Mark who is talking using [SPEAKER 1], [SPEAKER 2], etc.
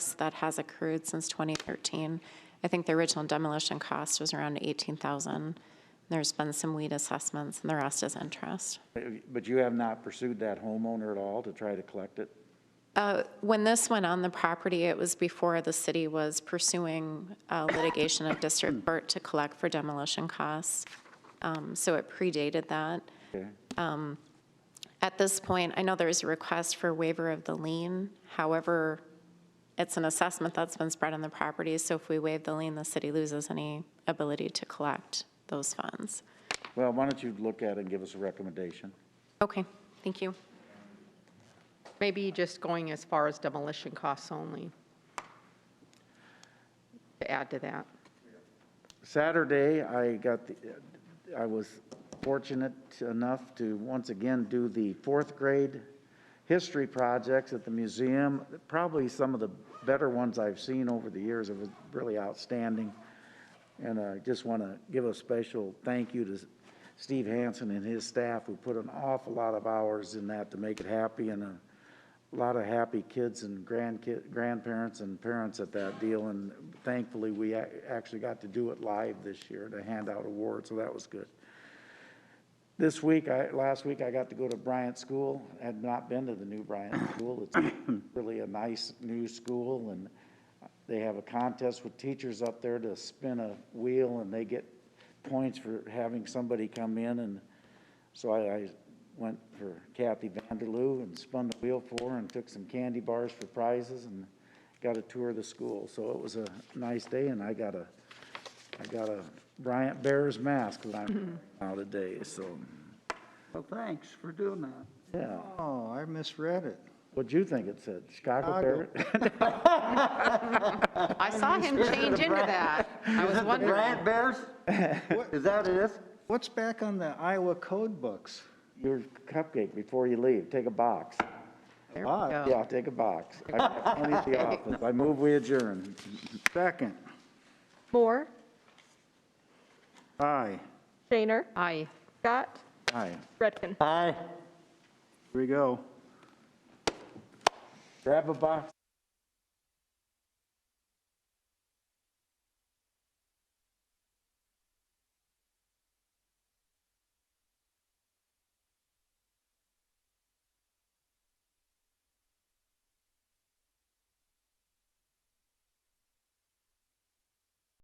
[SPEAKER 1] that has accrued since 2013. I think the original demolition cost was around 18,000. There's been some weed assessments, and the rest is interest.
[SPEAKER 2] But you have not pursued that homeowner at all to try to collect it?
[SPEAKER 1] Uh, When this went on the property, it was before the city was pursuing uh, litigation of District Court to collect for demolition costs. Um, So it predated that.
[SPEAKER 2] Okay.
[SPEAKER 1] At this point, I know there is a request for waiver of the lien. However, it's an assessment that's been spread on the property, so if we waive the lien, the city loses any ability to collect those funds.
[SPEAKER 2] Well, why don't you look at it and give us a recommendation?
[SPEAKER 1] Okay, thank you.
[SPEAKER 3] Maybe just going as far as demolition costs only. To add to that.
[SPEAKER 2] Saturday, I got, the I was fortunate enough to once again do the fourth grade history projects at the museum, probably some of the better ones I've seen over the years. It was really outstanding. And I just want to give a special thank you to Steve Hansen and his staff who put an awful lot of hours in that to make it happy and a lot of happy kids and grandkid, grandparents and parents at that deal. And thankfully, we ac- actually got to do it live this year to hand out awards, so that was good. This week, I, last week, I got to go to Bryant School. I Had not been to the new Bryant School. It's really a nice new school, and they have a contest with teachers up there to spin a wheel, and they get points for having somebody come in, and so I, I went for Kathy Vanderloo and spun the wheel for her and took some candy bars for prizes and got a tour of the school. So it was a nice day, and I got a I got a Bryant Bears mask that I'm out today, so,
[SPEAKER 4] Well, thanks for doing that.
[SPEAKER 2] yeah.
[SPEAKER 4] Oh, I misread it.
[SPEAKER 2] What'd you think it said? Chicago
[SPEAKER 4] Chicago.
[SPEAKER 2] Bears?
[SPEAKER 3] I saw him change into that. I was wondering.
[SPEAKER 4] Brad Bears? Is that it? What's back on the Iowa code books?
[SPEAKER 2] Your cupcake before you leave, take a box.
[SPEAKER 3] There we
[SPEAKER 4] Ah,
[SPEAKER 3] go.
[SPEAKER 2] Yeah, take a box. I I need the office. I move we adjourn.
[SPEAKER 4] Second.
[SPEAKER 5] Moore,
[SPEAKER 4] Aye.
[SPEAKER 5] Shaner,
[SPEAKER 3] Aye.
[SPEAKER 5] Scott,
[SPEAKER 2] Aye.
[SPEAKER 5] Redkin.
[SPEAKER 4] Aye. Here we go.
[SPEAKER 2] Grab a box.